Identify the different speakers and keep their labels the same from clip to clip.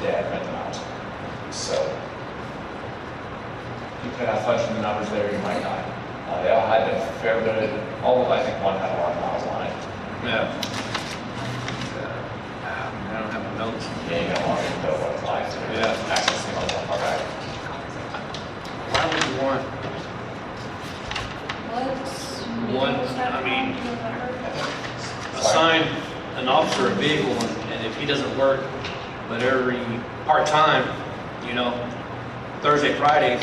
Speaker 1: dad ran the mountain. So you could have fudged the numbers there, you might not. Uh, They all had a fair bit of, all of, I think one had a lot of miles on it.
Speaker 2: Yeah. Uh, I don't have my notes.
Speaker 1: Yeah, you got a lot of the white lines. and
Speaker 2: Yeah.
Speaker 1: Accessing all that, all right.
Speaker 2: Why would you want,
Speaker 3: What?
Speaker 2: One, I mean-
Speaker 1: Sorry.
Speaker 2: assign an officer a vehicle and and if he doesn't work, but every part-time, you know, Thursday, Friday,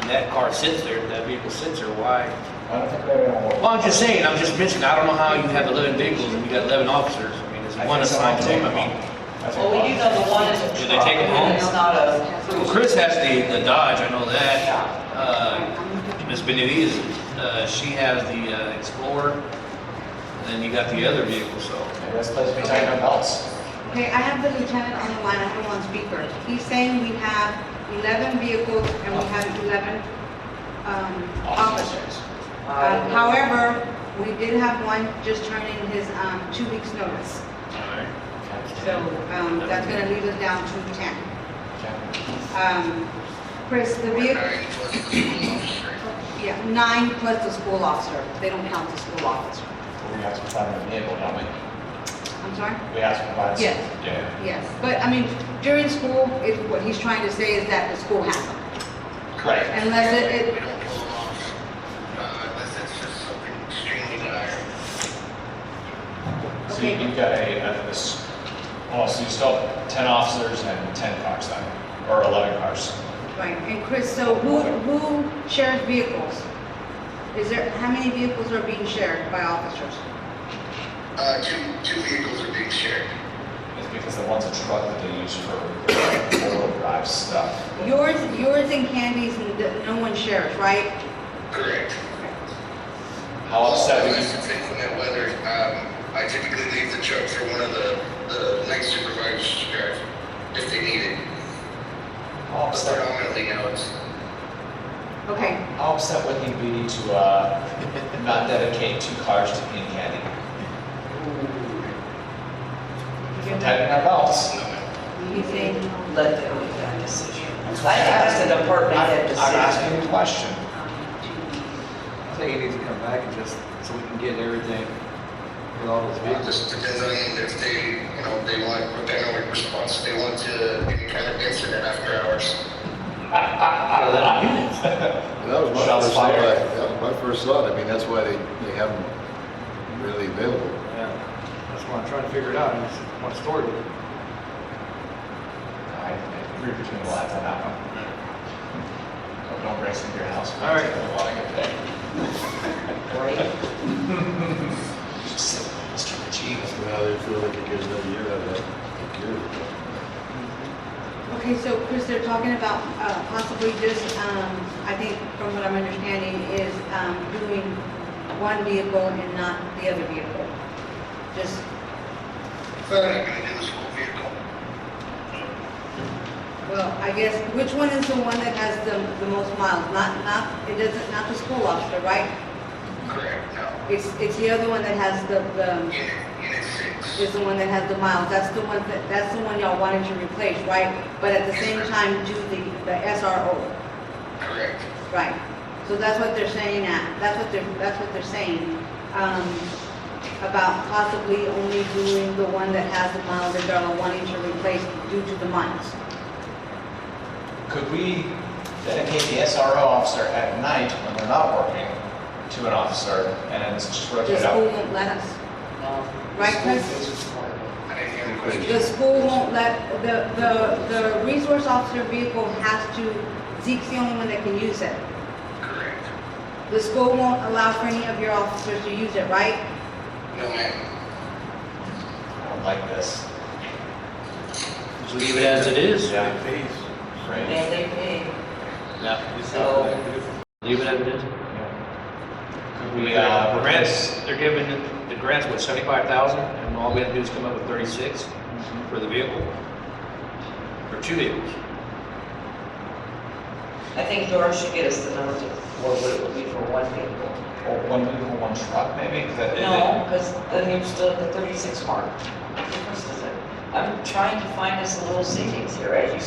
Speaker 2: and that car sits there, that vehicle sits there, why?
Speaker 1: I don't think they're gonna work.
Speaker 2: Well, I'm just saying, I'm just mentioning, I don't know how you have 11 vehicles and you got 11 officers. I mean, it's
Speaker 1: I think
Speaker 2: one assigned
Speaker 1: someone
Speaker 2: team, I
Speaker 1: will.
Speaker 2: mean.
Speaker 1: I think
Speaker 4: Well, we do
Speaker 1: one.
Speaker 4: know the one is a
Speaker 2: Do
Speaker 4: truck.
Speaker 2: they take 'em home?
Speaker 4: It's not a.
Speaker 2: Well, Chris has the, the Dodge, I know that. Uh, Ms. Benavides, uh, she has the uh, Explorer, and then you got the other vehicle, so.
Speaker 1: Maybe that's supposed to be tight on belts.
Speaker 5: Okay, I have the lieutenant on the line, I have him on speaker. He's saying we have 11 vehicles and we have 11 um, officers. Uh, However, we did have one just turn in his um, two weeks' notice. So um, that's going to leave us down to 10.
Speaker 1: Okay.
Speaker 5: Um, Chris, the vehicle... Yeah, nine plus the school officer. They don't count the school officer.
Speaker 1: We have to provide a vehicle, don't we?
Speaker 5: I'm sorry?
Speaker 1: We have to provide.
Speaker 5: Yes.
Speaker 1: Yeah.
Speaker 5: Yes, but I mean, during school, it- what he's trying to say is that the school has them.
Speaker 1: Right.
Speaker 5: Unless it,
Speaker 6: We
Speaker 5: it-
Speaker 6: don't pull them off, uh, unless it's just something extremely dire.
Speaker 1: So you- you've got a, a- this, oh, so you still have ten officers and ten cars then, or eleven cars.
Speaker 5: Right, and Chris, so who, who shares vehicles? Is there, how many vehicles are being shared by officers?
Speaker 6: Uh, two, two vehicles are being shared.
Speaker 1: It's because the one's a truck that they use for four-wheel drive stuff.
Speaker 5: Yours, yours and Candy's, and th- no one shares, right?
Speaker 6: Correct.
Speaker 1: How upset would
Speaker 6: Unless
Speaker 1: you,
Speaker 6: it's inclement weather, um, I typically leave the truck for one of the, the night supervisors to drive if they need it.
Speaker 1: how
Speaker 6: But
Speaker 1: upset,
Speaker 6: predominantly now it's,
Speaker 5: Okay,
Speaker 1: how upset would you be to, uh, not dedicate two cars to Ian Candy? Tighten our belts.
Speaker 5: he's saying,
Speaker 4: Let them make that decision. I asked the department head
Speaker 1: I'm
Speaker 4: decision.
Speaker 1: asking a question.
Speaker 7: I think he needs to come back and just, so we can get everything with all those
Speaker 6: it
Speaker 7: vehicles.
Speaker 6: just depends on if they, you know, they want a penalty response, they want to, any kind of incident after hours.
Speaker 8: That was my
Speaker 1: Shots
Speaker 8: first thought,
Speaker 1: fired.
Speaker 8: that was my first thought, I mean, that's why they, they have them really available.
Speaker 7: Yeah, that's why I'm trying to figure it out, I just want to store it.
Speaker 1: I agree between the lines on that one. Hope Don't break into your house.
Speaker 2: All right.
Speaker 1: While I get there.
Speaker 4: Right?
Speaker 1: Just sit, Mr. G.
Speaker 8: Now they feel like it gives them a year out of that security.
Speaker 5: okay, so Chris, they're talking about uh, possibly just, um, I think from what I'm understanding is um, doing one vehicle and not the other vehicle. Just,
Speaker 6: They're not gonna do this whole vehicle.
Speaker 5: well, I guess, which one is the one that has the, the most miles? Not, not, it doesn't, not the school officer, right?
Speaker 6: Correct, no.
Speaker 5: It's, it's the other one that has the, the,
Speaker 6: Unit, unit six.
Speaker 5: is the one that has the miles, that's the one that, that's the one y'all wanted to replace, right? But at the same time, do the, the SRO,
Speaker 6: Correct.
Speaker 5: right? So that's what they're saying at, that's what they're, that's what they're saying, um, about possibly only doing the one that has the miles that y'all are wanting to replace due to the miles.
Speaker 1: Could we dedicate the SRO officer at night when we're not working to an officer and then just rotate
Speaker 5: The
Speaker 1: it
Speaker 5: school
Speaker 1: out?
Speaker 5: won't let us,
Speaker 4: No.
Speaker 5: Right, Chris?
Speaker 6: I didn't hear the
Speaker 5: the
Speaker 6: question.
Speaker 5: school won't let, the, the, the resource officer vehicle has to, Zeke's the only one that can use it.
Speaker 6: Correct.
Speaker 5: The school won't allow for any of your officers to use it, right?
Speaker 6: No, ma'am.
Speaker 1: I don't like this.
Speaker 2: Just leave it as it is.
Speaker 1: Yeah.
Speaker 4: And they pay.
Speaker 2: Yeah.
Speaker 4: So-
Speaker 2: Leave it as it is.
Speaker 1: Could
Speaker 2: We,
Speaker 1: we,
Speaker 2: uh,
Speaker 1: uh,
Speaker 2: the grants, they're giving, the grants, what, 75,000? And all we have to do is come up with 36 for the vehicle, for two vehicles.
Speaker 4: I think Dora should get us the numbers of what it would be for one vehicle.
Speaker 1: or one vehicle, one truck maybe? 'Cause that-
Speaker 4: No, because then you're still at the thirty-six mark. What difference does it? I'm trying to find us a little savings here, as you